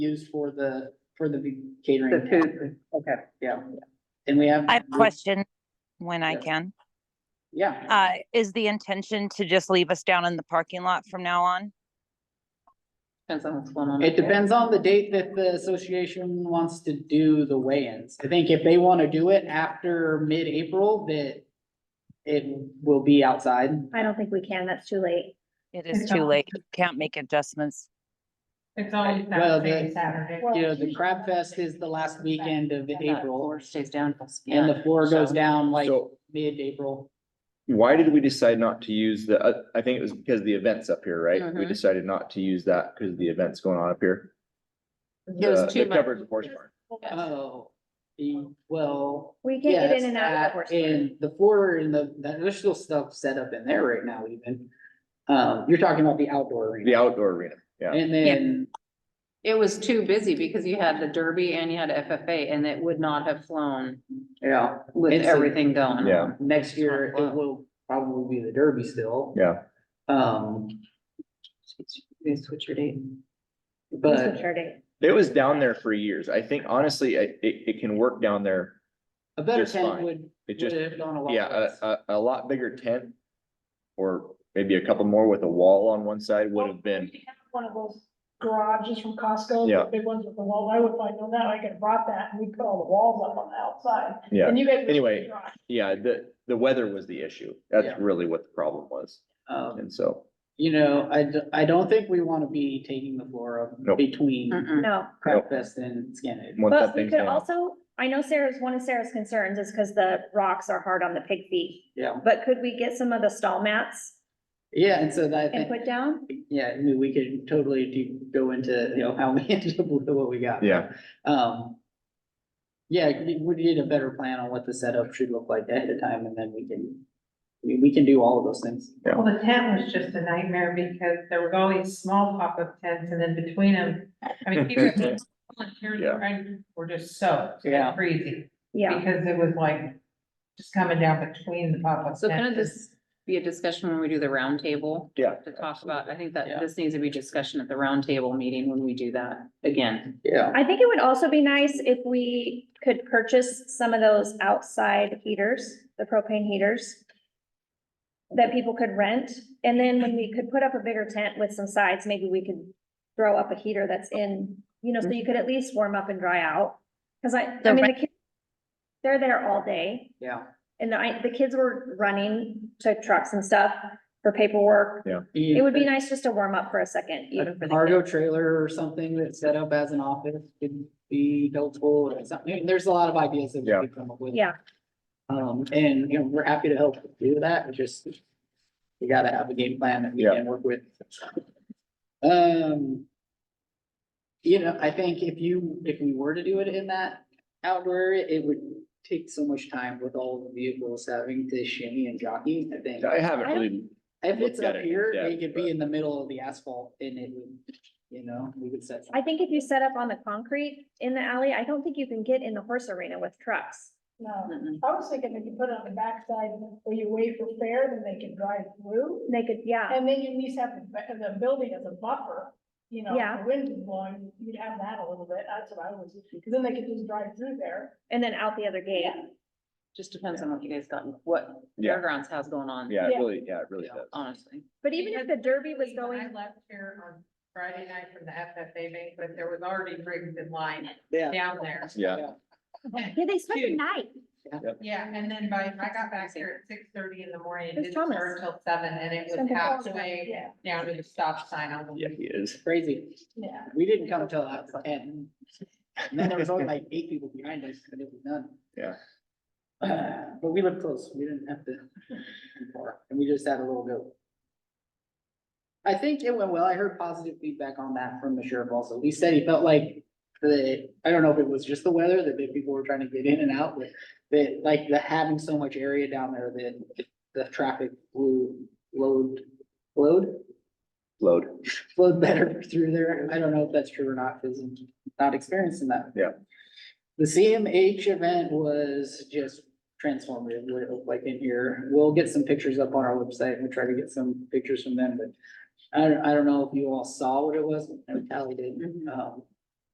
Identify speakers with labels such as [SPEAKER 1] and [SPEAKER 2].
[SPEAKER 1] used for the, for the
[SPEAKER 2] The
[SPEAKER 1] catering.
[SPEAKER 2] food, okay.
[SPEAKER 1] Yeah. And we have.
[SPEAKER 3] I have a question when I
[SPEAKER 1] Yeah.
[SPEAKER 3] can.
[SPEAKER 1] Yeah,
[SPEAKER 3] Uh, is the intention to just leave us down in the parking lot from now on?
[SPEAKER 2] Depends on what's going on.
[SPEAKER 1] it depends on the date that the association wants to do the weigh-ins. I think if they want to do it after mid-April, that it will be outside.
[SPEAKER 4] I don't think we can, that's too late.
[SPEAKER 3] It is
[SPEAKER 5] It's
[SPEAKER 3] too
[SPEAKER 5] not.
[SPEAKER 3] late. Can't make adjustments.
[SPEAKER 5] It's always
[SPEAKER 1] Well,
[SPEAKER 5] that
[SPEAKER 1] the-
[SPEAKER 5] same Saturday.
[SPEAKER 1] You know, the Crab Fest is the last weekend of April,
[SPEAKER 2] stays down.
[SPEAKER 1] and the floor goes down like
[SPEAKER 6] So
[SPEAKER 1] mid-April.
[SPEAKER 6] why did we decide not to use the, uh, I think it was because the event's up here, right? We
[SPEAKER 2] Mhm.
[SPEAKER 6] decided not to use that because the event's going on up here.
[SPEAKER 2] It was
[SPEAKER 6] The-
[SPEAKER 2] too
[SPEAKER 6] the
[SPEAKER 2] much.
[SPEAKER 6] Covered horse barn.
[SPEAKER 1] Oh, the- well.
[SPEAKER 4] We can't get
[SPEAKER 1] yes,
[SPEAKER 4] in and out of the
[SPEAKER 1] that
[SPEAKER 4] horse. barn.
[SPEAKER 1] and the floor and the, that- there's still stuff set up in there right now even. Um, you're talking about the outdoor
[SPEAKER 6] The
[SPEAKER 1] arena.
[SPEAKER 6] outdoor arena, yeah.
[SPEAKER 1] And then
[SPEAKER 2] It was too busy because you had the Derby and you had FFA and it would not have flown
[SPEAKER 1] Yeah,
[SPEAKER 2] with
[SPEAKER 1] It's a-
[SPEAKER 2] everything going on.
[SPEAKER 6] Yeah.
[SPEAKER 1] next year it will probably be the Derby still.
[SPEAKER 6] Yeah.
[SPEAKER 1] Um,
[SPEAKER 2] They switch your date.
[SPEAKER 4] That's
[SPEAKER 1] but
[SPEAKER 4] mature date.
[SPEAKER 6] It was down there for years. I think honestly, I- it, it can work down there.
[SPEAKER 1] a better
[SPEAKER 6] Just
[SPEAKER 1] tent
[SPEAKER 6] fine.
[SPEAKER 1] would,
[SPEAKER 6] It
[SPEAKER 1] would
[SPEAKER 6] just,
[SPEAKER 1] have gone a lot.
[SPEAKER 6] yeah, uh,
[SPEAKER 1] less.
[SPEAKER 6] a, a, a lot bigger tent. Or maybe a couple more with a wall on one side would have been,
[SPEAKER 5] We have One of those garages from Costco,
[SPEAKER 6] Yeah.
[SPEAKER 5] the big ones with the wall, I would like, no, now I could have brought that and we put all the walls up on the outside.
[SPEAKER 6] Yeah.
[SPEAKER 5] Oh, And you guys. would-
[SPEAKER 6] Anyway. yeah, the, the weather was the issue.
[SPEAKER 1] Yeah.
[SPEAKER 6] That's really what the problem was.
[SPEAKER 1] Um,
[SPEAKER 6] uh, And so,
[SPEAKER 1] you know, I, d- I don't think we want to be taking the floor up
[SPEAKER 6] Nope.
[SPEAKER 1] between
[SPEAKER 2] Mm-mm.
[SPEAKER 4] No,
[SPEAKER 1] Crab Fest and Skinhead.
[SPEAKER 6] once that
[SPEAKER 4] but we
[SPEAKER 6] thing's
[SPEAKER 4] could
[SPEAKER 6] down,
[SPEAKER 4] also, I know Sarah's, one of Sarah's concerns is because the rocks are hard on the pig feet.
[SPEAKER 1] Yeah,
[SPEAKER 4] But could we get some of the stall mats
[SPEAKER 1] yeah, and so that, I
[SPEAKER 4] and
[SPEAKER 1] think,
[SPEAKER 4] put down?
[SPEAKER 1] yeah, I mean, we could totally do, go into, you know, how we ended up with what we got.
[SPEAKER 6] yeah.
[SPEAKER 1] Um. Yeah, we we need a better plan on what the setup should look like ahead of time and then we can, I mean, we can do all of those things.
[SPEAKER 7] Well, the tent was just a nightmare because there was always small pop-up tents and then between them, I mean, people volunteers
[SPEAKER 6] Yeah.
[SPEAKER 7] were- were just so
[SPEAKER 1] Yeah.
[SPEAKER 7] crazy
[SPEAKER 4] Yeah,
[SPEAKER 7] because it was like just coming down between the pop-up
[SPEAKER 2] So kind of
[SPEAKER 7] tents.
[SPEAKER 2] this be a discussion when we do the roundtable?
[SPEAKER 6] Yeah,
[SPEAKER 2] To talk about, I think that
[SPEAKER 1] Yeah.
[SPEAKER 2] this needs to be discussion at the roundtable meeting when we do that again.
[SPEAKER 1] Yeah.
[SPEAKER 4] I think it would also be nice if we could purchase some of those outside heaters, the propane heaters. That people could rent, and then when we could put up a bigger tent with some sides, maybe we could throw up a heater that's in, you know, so you could at least warm up and dry out. Cause I, I
[SPEAKER 3] The
[SPEAKER 4] mean, the kids, they're there all day.
[SPEAKER 1] Yeah.
[SPEAKER 4] And I, the kids were running to trucks and stuff for paperwork. It would be nice just to warm up for a second. even for the kids.
[SPEAKER 1] Cargo trailer or something that's set up as an office could be helpful or something. I mean, There's a lot of ideas that we
[SPEAKER 6] Yeah.
[SPEAKER 1] could come up with.
[SPEAKER 4] Yeah,
[SPEAKER 1] Um, and, you know, we're happy to help do that, we just, we gotta have a game plan that we
[SPEAKER 6] Yeah.
[SPEAKER 1] can work with. Um, you know, I think if you, if we were to do it in that outdoor area, it would take so much time with all the vehicles having to shimmy and jockey, I think.
[SPEAKER 6] I
[SPEAKER 4] I
[SPEAKER 6] haven't
[SPEAKER 4] don't-
[SPEAKER 6] really,
[SPEAKER 1] If it's
[SPEAKER 6] looked
[SPEAKER 1] up
[SPEAKER 6] at it in
[SPEAKER 1] here, they
[SPEAKER 6] depth,
[SPEAKER 1] could
[SPEAKER 6] but-
[SPEAKER 1] be in the middle of the asphalt and it would, you know, we would set.
[SPEAKER 4] I think if you set up on the concrete in the alley, I don't think you can get in the horse arena with trucks.
[SPEAKER 5] No, I was thinking if you put it on the backside where you wait for fair, then they can drive through.
[SPEAKER 4] They could, yeah,
[SPEAKER 5] And then you at least have the, ba- the building as a buffer, you know,
[SPEAKER 4] Yeah.
[SPEAKER 5] if the wind is blowing, you'd have that a little bit, that's what I was, because then they could just drive through there.
[SPEAKER 4] and then out the other gate.
[SPEAKER 2] Just depends on what you guys got, what
[SPEAKER 6] Yeah.
[SPEAKER 2] fairgrounds has going on.
[SPEAKER 6] yeah, it
[SPEAKER 5] Yeah.
[SPEAKER 6] really, yeah, it really
[SPEAKER 1] Yeah.
[SPEAKER 6] does.
[SPEAKER 2] Honestly.
[SPEAKER 4] But even if the derby was
[SPEAKER 7] When I
[SPEAKER 4] going,
[SPEAKER 7] left here on Friday night from the FFA banquet, there was already rigs in line
[SPEAKER 1] Yeah.
[SPEAKER 7] down there.
[SPEAKER 6] Yeah,
[SPEAKER 4] yeah, they spent the
[SPEAKER 7] Huge.
[SPEAKER 4] night.
[SPEAKER 7] Yeah, and then by, I got back here at six thirty in the morning, it
[SPEAKER 4] Who's
[SPEAKER 7] didn't
[SPEAKER 4] Thomas?
[SPEAKER 7] start till seven and it was
[SPEAKER 4] Something else.
[SPEAKER 7] halfway
[SPEAKER 5] Yeah,
[SPEAKER 7] down to the stop sign on the.
[SPEAKER 6] yeah, he is.
[SPEAKER 1] Crazy,
[SPEAKER 5] yeah.
[SPEAKER 1] we didn't come till after ten. And then there was only like eight people behind us, and it was none.
[SPEAKER 6] Yeah.
[SPEAKER 1] Uh, But we lived close, we didn't have to, be far, and we just had a little go. I think it went well, I heard positive feedback on that from the sheriff also, he said he felt like the, I don't know if it was just the weather, that the people were trying to get in and out, but that, like, the having so much area down there that the traffic blew, flowed, flowed,
[SPEAKER 6] Load.
[SPEAKER 1] flowed better through there. I don't know if that's true or not, because I'm not experiencing that.
[SPEAKER 6] Yeah.
[SPEAKER 1] The CMH event was just transformative, what it looked like in here. We'll get some pictures up on our website and try to get some pictures from them, but I don't, I don't know if you all saw what it was, I probably did.
[SPEAKER 2] Mhm.
[SPEAKER 1] Um,